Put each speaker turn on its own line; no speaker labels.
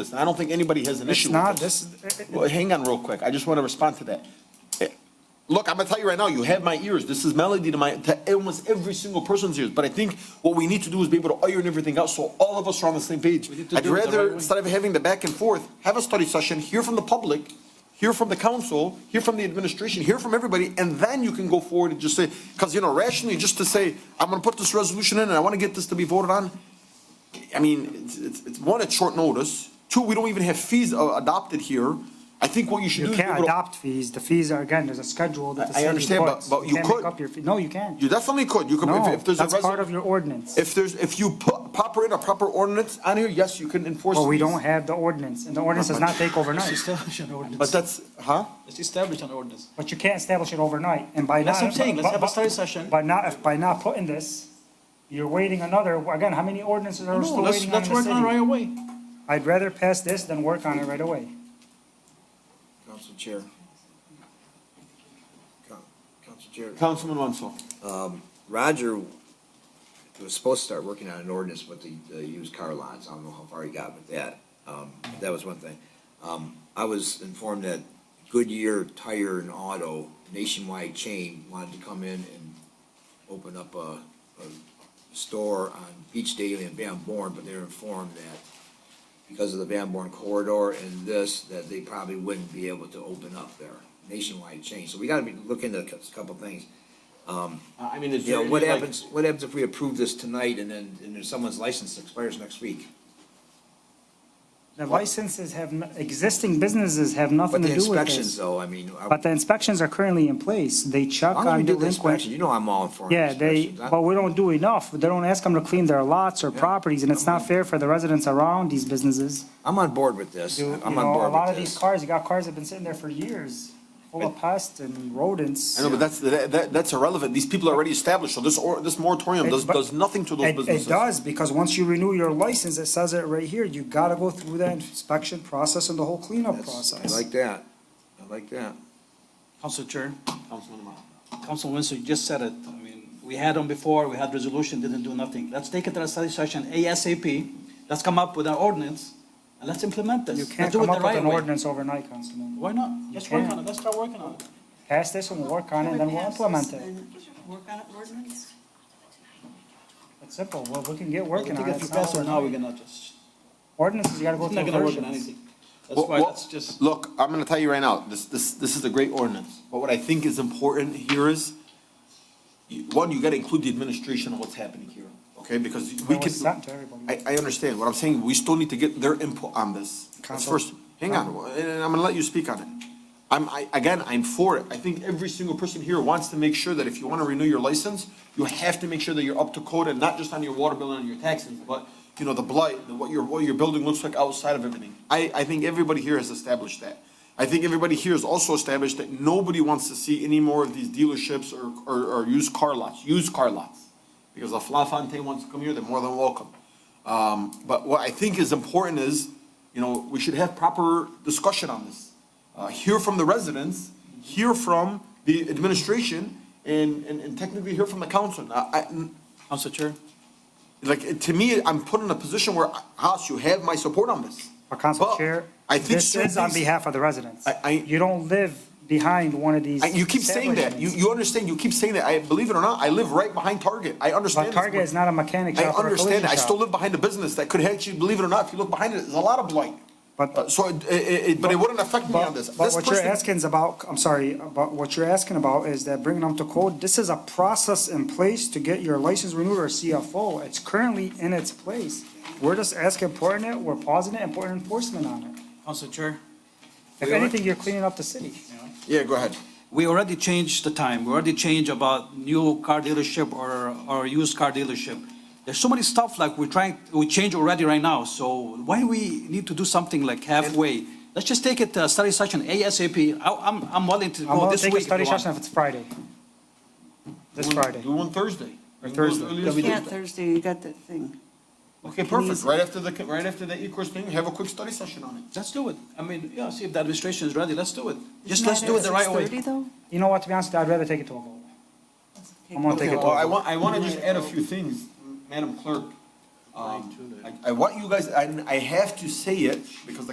this. I don't think anybody has an
It's
issue
not,
with this.
this, is-
Well, hang on real quick. I just want to respond to that. Eh, Look, I'm gonna tell you right now, you have my ears. This is melody to my, to almost every single person's ears. But I think what we need to do is be able to iron everything out so all of us are on the same page.
need to
I'd
do it the right
rather,
way.
instead of having the back and forth, have a study session, hear from the public, hear from the council, hear from the administration, hear from everybody, and then you can go forward and just say, because, you know, rationally, just to say, I'm gonna put this resolution in and I want to get this to be voted on, I mean, it's, it's, it's one, at short notice. Two, we don't even have fees uh, adopted here. I think what you should
you
do is be
can't
able to.
adopt fees, the fees are, again, there's a schedule that the
I- I
city
understand, but-
puts.
but you
can't make
could.
up your fee- No, you can't.
You definitely could. You could,
No,
if, if there's a
that's part
resolution,
of your ordinance.
if there's, if you put proper in a proper ordinance on here, yes, you can enforce.
Well, we
these.
don't have the ordinance, and the ordinance does not take
Let's
overnight.
establish an ordinance.
But that's, huh?
Let's establish an ordinance.
But you can't establish it overnight, and by not.
That's what I'm saying, let's
but-
have a
but-
study session.
By not, if by not putting this, you're waiting another, again, how many ordinances
No,
are still
let's,
waiting on
let's
the
work on it right
city?
away.
I'd rather pass this than work on it right away.
Council Chair. Coun- Council Chair,
Councilman Wenzel.
Roger was supposed to start working on an ordinance with the, the used car lots. I don't know how far he got with that. Um, that was one thing. Um, I was informed that Goodyear Tire and Auto nationwide chain wanted to come in and open up a, a store on Beach Daily and Van Born, but they were informed that because of the Van Born corridor and this, that they probably wouldn't be able to open up their nationwide chain. So we gotta be looking at a couple things.
I mean, is
Yeah,
there
what
any, like,
happens, what happens if we approve this tonight and then, and then someone's license expires next week?
The licenses have, n- existing businesses have nothing
But the
to do with
inspections
this.
though, I mean, are-
But the inspections are currently in place, they check
how do we
on
do the inspection?
delinquent.
You know I'm all for
Yeah, they,
inspections. I-
but we don't do enough, they don't ask them to clean their lots or properties, and it's not fair for the residents around these businesses.
I'm on board with this,
Do- you
I'm
know, a
on
lot
board
of
with
these
this.
cars, you got cars that have been sitting there for years, full of pests and rodents.
I know, but that's, that, that- that's irrelevant. These people are already established, so this, or, this moratorium
It-
does,
but-
does nothing to those
It, it
businesses.
does, because once you renew your license, it says it right here, you gotta go through that inspection process and the whole cleanup
That's- I
process.
like that, I like that.
Council Chair,
Councilman Ahmad.
Council Winslow, you just said it. I mean, we had them before, we had resolution, didn't do nothing. Let's take it to a study session ASAP. Let's come up with an ordinance and let's implement this.
You
Let's
can't
do
come
it the
up with
right
an
way.
ordinance overnight, Councilman.
Why not? Let's work
can't.
on it, let's start working on it.
Pass this and we'll work on it, and then we'll implement it.
Work on it, ordinance?
It's simple, well, we can get
I
working
think
on it.
if you
It's not
pass it now, we're
overnight.
gonna just,
Ordinances, you gotta go
it's
through
not gonna work on
versions.
anything. That's why
Well,
let's just,
Look, I'm gonna tell you right now, this, this, this is a great ordinance, but what I think is important here is, you- one, you gotta include the administration on what's happening here, okay, because we
Well,
can.
it's not to everybody.
I, I understand, what I'm saying, we still need to get their input on this. That's
Counsel.
first, hang on, and and I'm gonna let you speak on it. I'm, I, again, I'm for it, I think every single person here wants to make sure that if you wanna renew your license, you have to make sure that you're up to code and not just on your water bill and your taxes, but, you know, the blight, the- what your, what your building looks like outside of everything. I, I think everybody here has established that. I think everybody here has also established that nobody wants to see any more of these dealerships or, or, or used car lots, used car lots. Because if La Fontaine wants to come here, they're more than welcome. Um, but what I think is important is, you know, we should have proper discussion on this. Uh, hear from the residents, hear from the administration, and, and, and technically hear from the council. I, I,
Council Chair,
like, it- to me, I'm put in a position where, Haas, you have my support on this.
Our Uh, council
But
chair,
I think
this
certain
is on
things-
behalf of the residents.
I- I-
You don't live behind one of these.
I- You keep saying that, you,
establishments.
you understand, you keep saying that, I, believe it or not, I live right behind Target, I understand.
But
this.
Target is not a mechanic
I
shop or a collision
understand, I still
shop.
live behind a business that could actually, believe it or not, if you look behind it, there's a lot of blight.
But-
Uh, So, it, it, it- but it wouldn't affect me on
But
this.
but
This
what you're
person-
asking is about, I'm sorry, but what you're asking about is that bringing them to code, this is a process in place to get your license renewed or CFO. It's currently in its place. We're just asking for it, we're pausing it and putting enforcement on it.
Council Chair.
If
We are-
anything, you're cleaning up the city.
Yeah, go ahead.
we already changed the time, we already changed about new car dealership or, or used car dealership. There's so many stuff like we're trying, we change already right now, so why we need to do something like halfway? Let's just take it to a study session ASAP, I, I'm, I'm willing to
I'm
go
gonna
this
take a
week if
study
you want.
session if it's Friday. This
We'll
Friday.
Do one Thursday.
Or
We can do it as
Thursday.
early as
Yeah,
Thursday.
Thursday, you got that thing.
Okay, perfect. Right after the, right after the e-course thing, have a quick study session on it.
Let's do it, I mean, yeah, see if the administration is ready, let's do it, just
Isn't
let's
that
do it
at
the right
6:30
way.
though?
You know what, to be honest, with you, I'd rather take it to a vote.
Take
I'm gonna take
Okay,
it to a
well, Uh, I
vote.
want, I want to just add a few things, Madam Clerk. Um, I, I want you guys, I, I have to say it, because the